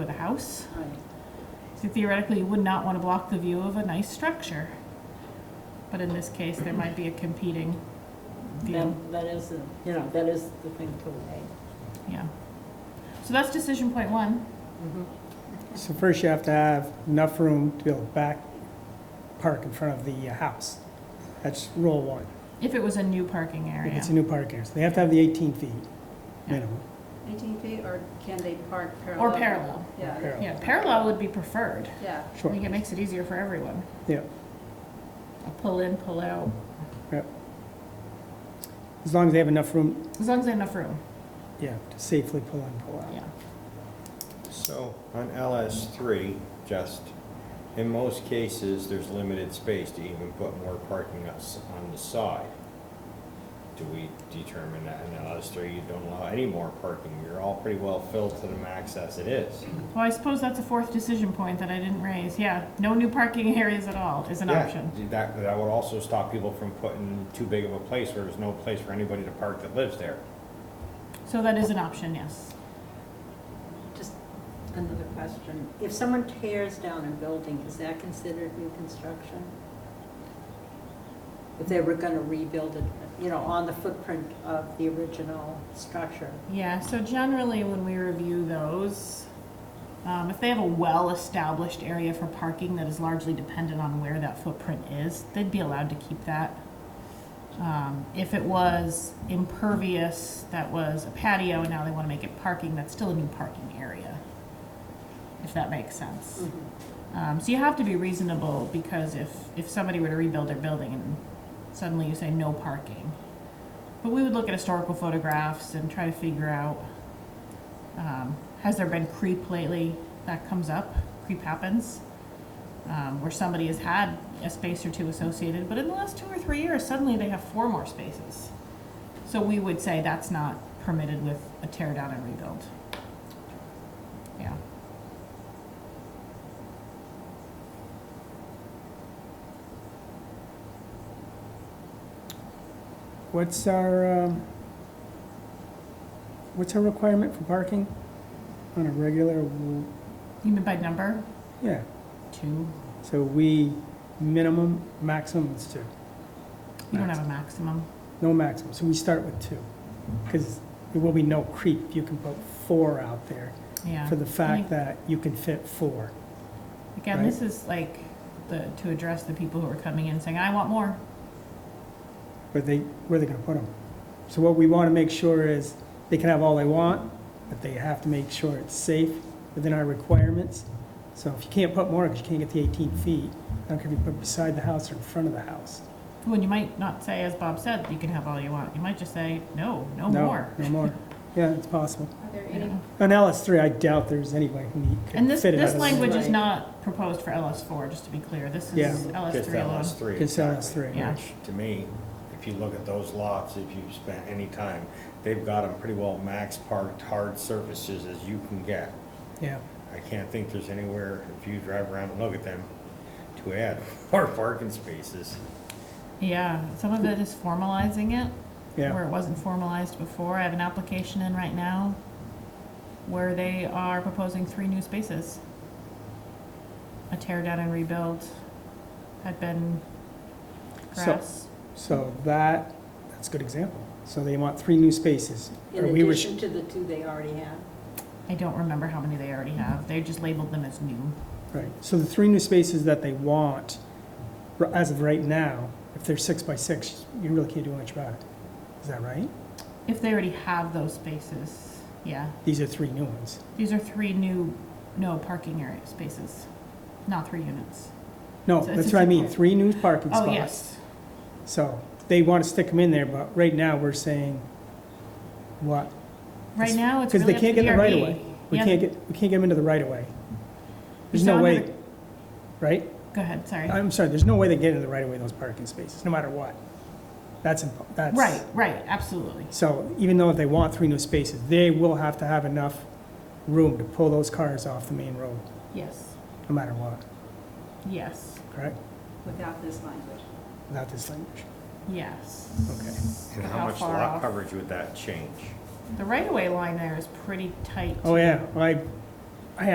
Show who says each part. Speaker 1: house.
Speaker 2: Right.
Speaker 1: So theoretically, you would not want to block the view of a nice structure. But in this case, there might be a competing view.
Speaker 2: That, that is, a- you know, that is the thing to weigh.
Speaker 1: Yeah. So that's decision point one.
Speaker 3: So first you have to have enough room to be able to back park in front of the uh, house. That's rule one.
Speaker 1: If it was a new parking
Speaker 3: If
Speaker 1: area.
Speaker 3: it's a new park area, so they have to have the 18 feet
Speaker 1: Oh, Yeah.
Speaker 3: minimum.
Speaker 4: 18 feet, or can they park parallel?
Speaker 1: Or parallel.
Speaker 4: Yeah,
Speaker 3: parallel.
Speaker 1: Yeah, parallel would be preferred.
Speaker 4: yeah.
Speaker 1: I
Speaker 3: Sure,
Speaker 1: think it makes it easier for everyone.
Speaker 3: yeah,
Speaker 1: A pull in, pull out,
Speaker 3: yeah. As long as they have enough room,
Speaker 1: as long as they have enough room,
Speaker 3: yeah, to safely pull in, pull out.
Speaker 1: yeah.
Speaker 5: So on LS three, just, in most cases, there's limited space to even put more parking us on the side. Do we determine that in LS three, you don't allow any more parking? You're all pretty well filled to the max as it is.
Speaker 1: Well, I suppose that's a fourth decision point that I didn't raise. Yeah, no new parking areas at all is an
Speaker 5: Yeah,
Speaker 1: option.
Speaker 5: That, that would also stop people from putting too big of a place where there's no place for anybody to park that lives there.
Speaker 1: So that is an option, yes.
Speaker 2: Just another question. If someone tears down a building, is that considered new construction? If they were gonna rebuild it, you know, on the footprint of the original structure?
Speaker 1: Yeah, so generally when we review those, um, if they have a well-established area for parking that is largely dependent on where that footprint is, they'd be allowed to keep that. Um, if it was impervious, that was a patio, and now they want to make it parking, that's still a new parking area, if that makes sense. Um, so you have to be reasonable because if, if somebody were to rebuild their building and suddenly you say no parking, but we would look at historical photographs and try to figure out um, has there been creep lately? That comes up. Creep happens um, where somebody has had a space or two associated, but in the last two or three years, suddenly they have four more spaces. So we would say that's not permitted with a tear down and rebuild. Yeah.
Speaker 3: What's our, um, what's our requirement for parking on a regular, w-
Speaker 1: You mean by number?
Speaker 3: yeah,
Speaker 1: Two.
Speaker 3: so we, minimum, maximum is two.
Speaker 1: You don't have a maximum.
Speaker 3: No maximum, so we start with two, because there will be no creep, you can put four out there
Speaker 1: Yeah.
Speaker 3: for the
Speaker 1: You-
Speaker 3: fact that you can fit four.
Speaker 1: Again, this is like the, to address the people who are coming in saying, I want more.
Speaker 3: Where they, where they gonna put them? So what we want to make sure is, they can have all they want, but they have to make sure it's safe within our requirements. So if you can't put more, because you can't get the 18 feet, I don't care if you put beside the house or in front of the house.
Speaker 1: When you might not say, as Bob said, you can have all you want. You might just say, no, no more.
Speaker 3: No more, yeah, it's possible.
Speaker 4: Are there
Speaker 1: You
Speaker 4: any,
Speaker 1: know?
Speaker 3: On LS3, I doubt there's anybody who need-
Speaker 1: And
Speaker 3: could
Speaker 1: this,
Speaker 3: fit it out
Speaker 1: this
Speaker 3: of the...
Speaker 1: language is
Speaker 2: Right.
Speaker 1: not proposed for LS four, just to be clear. This
Speaker 3: Yeah.
Speaker 1: is LS
Speaker 5: Just
Speaker 1: three alone.
Speaker 5: LS three.
Speaker 3: Just LS
Speaker 5: exactly.
Speaker 3: three.
Speaker 1: Yeah.
Speaker 5: Which, to me, if you look at those lots, if you've spent any time, they've got them pretty well max parked, hard surfaces as you can get.
Speaker 3: Yeah,
Speaker 5: I can't think there's anywhere, if you drive around and look at them, to add more parking spaces.
Speaker 1: Yeah, some of it is formalizing it,
Speaker 3: yeah.
Speaker 1: where it wasn't formalized before. I have an application in right now where they are proposing three new spaces. A tear down and rebuild had been
Speaker 3: So-
Speaker 1: grass.
Speaker 3: So that, that's a good example. So they want three new spaces.
Speaker 2: In
Speaker 3: Are we res-
Speaker 2: addition to the two they already have?
Speaker 1: I don't remember how many they already have. They just labeled them as new.
Speaker 3: Right, so the three new spaces that they want, r- as of right now, if they're six by six, you really can't do much about it. Is that right?
Speaker 1: If they already have those spaces, yeah.
Speaker 3: These are three new ones.
Speaker 1: These are three new, no parking area spaces, not three units.
Speaker 3: No,
Speaker 1: So it's
Speaker 3: that's
Speaker 1: a
Speaker 3: what I mean,
Speaker 1: typical-
Speaker 3: three new parking
Speaker 1: Oh,
Speaker 3: spots.
Speaker 1: yes.
Speaker 3: So they want to stick them in there, but right now, we're saying, what?
Speaker 1: Right now, it's
Speaker 3: Because
Speaker 1: really
Speaker 3: they
Speaker 1: up to
Speaker 3: can't get
Speaker 1: the
Speaker 3: the right of
Speaker 1: RV.
Speaker 3: way. We
Speaker 1: Yeah.
Speaker 3: can't get, we can't get them into the right of way. There's
Speaker 1: So
Speaker 3: no
Speaker 1: I'm
Speaker 3: way,
Speaker 1: gonna-
Speaker 3: right?
Speaker 1: Go ahead, sorry.
Speaker 3: I'm sorry, there's no way they get into the right of way, those parking spaces, no matter what. That's, impo- that's.
Speaker 1: Right, right, absolutely.
Speaker 3: So even though if they want three new spaces, they will have to have enough room to pull those cars off the main road,
Speaker 1: Yes,
Speaker 3: no matter what,
Speaker 1: yes,
Speaker 3: correct?
Speaker 4: without this language?
Speaker 3: Without this language.
Speaker 1: yes.
Speaker 3: Okay.
Speaker 5: And
Speaker 1: Look
Speaker 5: how much
Speaker 1: far
Speaker 5: lot
Speaker 1: off.
Speaker 5: coverage would that change?
Speaker 1: The right-of-way line there is pretty tight.
Speaker 3: Oh,
Speaker 1: too.
Speaker 3: yeah, well, I